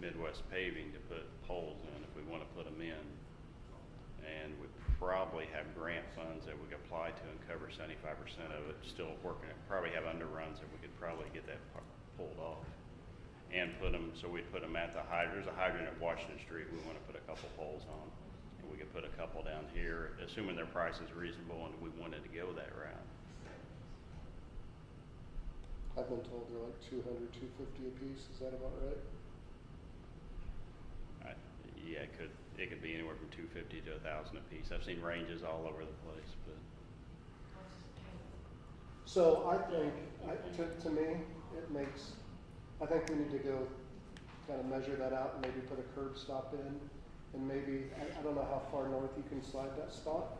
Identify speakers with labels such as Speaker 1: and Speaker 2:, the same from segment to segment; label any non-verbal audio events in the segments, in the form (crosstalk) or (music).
Speaker 1: Midwest paving to put poles in if we want to put them in. And we probably have grant funds that we could apply to and cover seventy-five percent of it, still working it. Probably have underruns that we could probably get that pu- pulled off. And put them, so we put them at the hydrant, there's a hydrant at Washington Street we want to put a couple poles on. And we could put a couple down here, assuming their price is reasonable and we wanted to go that route.
Speaker 2: I've been told they're like 200, 250 apiece. Is that about
Speaker 1: I-
Speaker 2: right?
Speaker 1: Yeah, it could, it could be anywhere from two fifty to a thousand apiece. I've seen ranges all over the place, but
Speaker 2: So I think, I, to, to me, it makes, I think we need to go kind of measure that out and maybe put a curb stop in. And maybe, I, I don't know how far north you can slide that spot.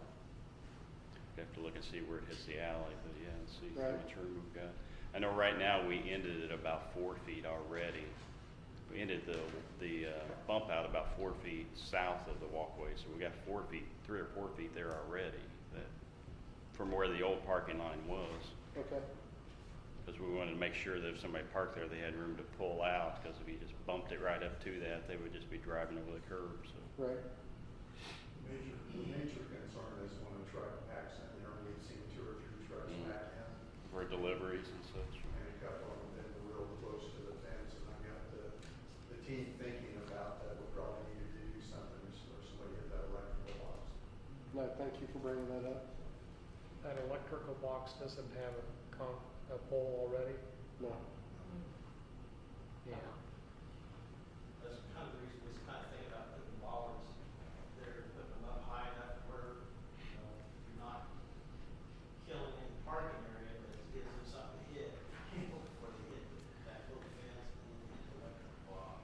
Speaker 1: you have to look and see where it hits the alley, but yeah, and see how
Speaker 2: Right.
Speaker 1: much room we've got. I know right now we ended at about four feet already. We ended the, the uh, bump out about four feet south of the walkway, so we got four feet, three or four feet there already that, from where the old parking line was.
Speaker 2: Okay,
Speaker 1: because we wanted to make sure that if somebody parked there, they had room to pull out, because if you just bumped it right up to that, they would just be driving over the curb, so.
Speaker 2: right.
Speaker 3: Major, the major concern is when a truck packs in there, we've seen two or three trucks
Speaker 1: Mhm.
Speaker 3: pack in,
Speaker 1: For deliveries and such.
Speaker 3: and a couple of them been real close to the fence, and I got the, the team thinking about that, we probably need to do something, or somebody hit that electrical box.
Speaker 2: No, thank you for bringing that up.
Speaker 4: That electrical box doesn't have a con, a pole already?
Speaker 2: No.
Speaker 4: Yeah.
Speaker 5: That's kind of the reason we was kind of thinking about putting bollards there, putting them up high enough where, you know, you're not killing in the parking area, but it gives them something to hit (laughs) before they hit that little fence and then hit the electric box.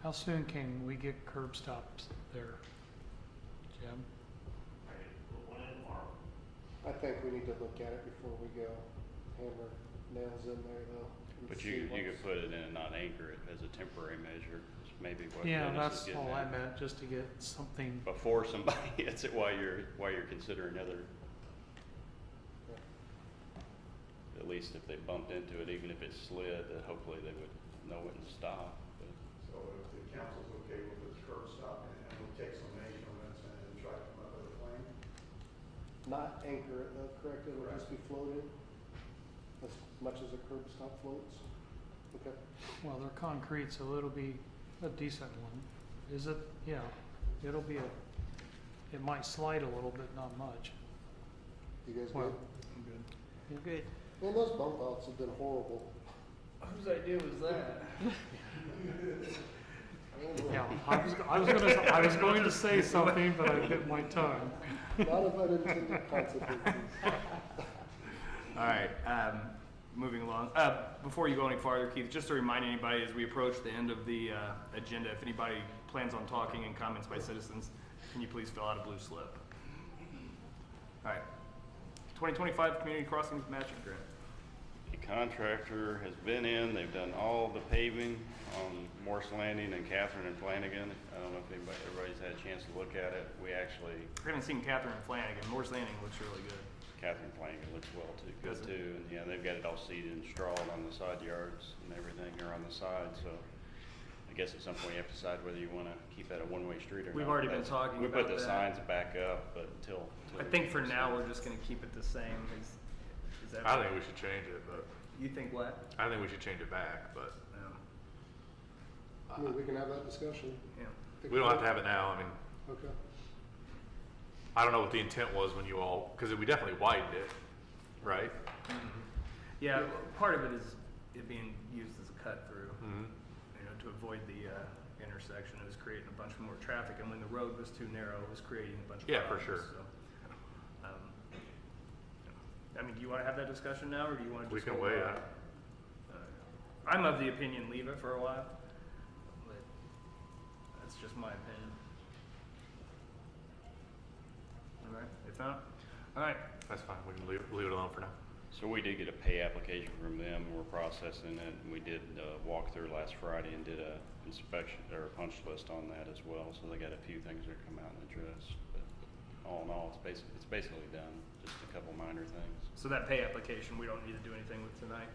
Speaker 4: How soon can we get curb stops there, Jim?
Speaker 2: I think we need to look at it before we go hammer nails in there though. and
Speaker 1: But
Speaker 2: see
Speaker 1: you, you
Speaker 2: what's-
Speaker 1: could put it in and not anchor it as a temporary measure, is maybe what
Speaker 4: Yeah,
Speaker 1: Dennis is
Speaker 4: that's
Speaker 1: getting
Speaker 4: all I
Speaker 1: at.
Speaker 4: meant, just to get something,
Speaker 1: Before somebody (laughs) hits it while you're, while you're considering other,
Speaker 2: Yeah.
Speaker 1: at least if they bumped into it, even if it slid, that hopefully they would know it and stop. but-
Speaker 3: So if the council's okay with this curb stop, and we'll take some measurements and try to come up with a plan,
Speaker 2: Not anchor uh, it though, correct? It'll just be floated as much as a curb stop floats. Okay.
Speaker 4: well, they're concrete, so it'll be a decent one. Is it, yeah, it'll be a, it might slide a little bit, not much.
Speaker 2: You guys
Speaker 4: Well,
Speaker 2: good?
Speaker 4: You're good.
Speaker 2: Man, those bump outs have been horrible.
Speaker 6: Whose idea was
Speaker 2: (laughs)
Speaker 6: that?
Speaker 4: Yeah, I was, I was gonna, I was going to say something, but I bit my tongue.
Speaker 2: Not of unintended consequences.
Speaker 6: All right, um, moving along. Uh, before you go any farther, Keith, just to remind anybody as we approach the end of the uh, agenda, if anybody plans on talking and comments by citizens, can you please fill out a blue slip? All right. 2025 Community Crossings Matching Grant.
Speaker 1: The contractor has been in, they've done all the paving on Morse Landing and Catherine and Flanagan. I don't know if anybody, everybody's had a chance to look at it. We actually,
Speaker 6: I haven't seen Catherine Flanagan. Moore's Landing looks really good.
Speaker 1: Catherine Flanagan looks well too, good
Speaker 6: Does it?
Speaker 1: too. And yeah, they've got it all seeded and strawed on the side yards and everything are on the side, so I guess at some point you have to decide whether you wanna keep that a one-way street or not.
Speaker 6: We've already been
Speaker 1: That's-
Speaker 6: talking
Speaker 1: We put
Speaker 6: about
Speaker 1: the
Speaker 6: that.
Speaker 1: signs back up, but until.
Speaker 6: I
Speaker 1: till-
Speaker 6: think for now we're just going to keep it the same. Is, is that
Speaker 7: I think we should change it, but
Speaker 6: You think what?
Speaker 7: I think we should change it back, but
Speaker 6: Um,
Speaker 2: I mean, we can have that discussion.
Speaker 6: yeah.
Speaker 7: we don't have to have it now. I mean,
Speaker 2: Okay.
Speaker 7: I don't know what the intent was when you all, because we definitely widened it, right?
Speaker 6: Yeah, well, part of it is it being used as a cut through,
Speaker 7: Mm-hmm.
Speaker 6: you know, to avoid the uh, intersection. It was creating a bunch more traffic, and when the road was too narrow, it was creating a bunch of
Speaker 7: Yeah, for
Speaker 6: problems.
Speaker 7: sure.
Speaker 6: So, um, I mean, do you want to have that discussion now, or do you want to
Speaker 7: We
Speaker 6: just
Speaker 7: can
Speaker 6: hold
Speaker 7: wait.
Speaker 6: off?
Speaker 7: I,
Speaker 6: Uh, I'm of the opinion leave it for a while, but that's just my opinion. All right. If not, all right.
Speaker 7: that's fine. We can leave, leave it alone for now.
Speaker 1: So we did get a pay application from them, we're processing it, and we did uh, walk through last Friday and did a inspection, or a punch list on that as well, so they got a few things that come out and address. But All in all, it's basically, it's basically done, just a couple minor things.
Speaker 6: So that pay application, we don't need to do anything with tonight.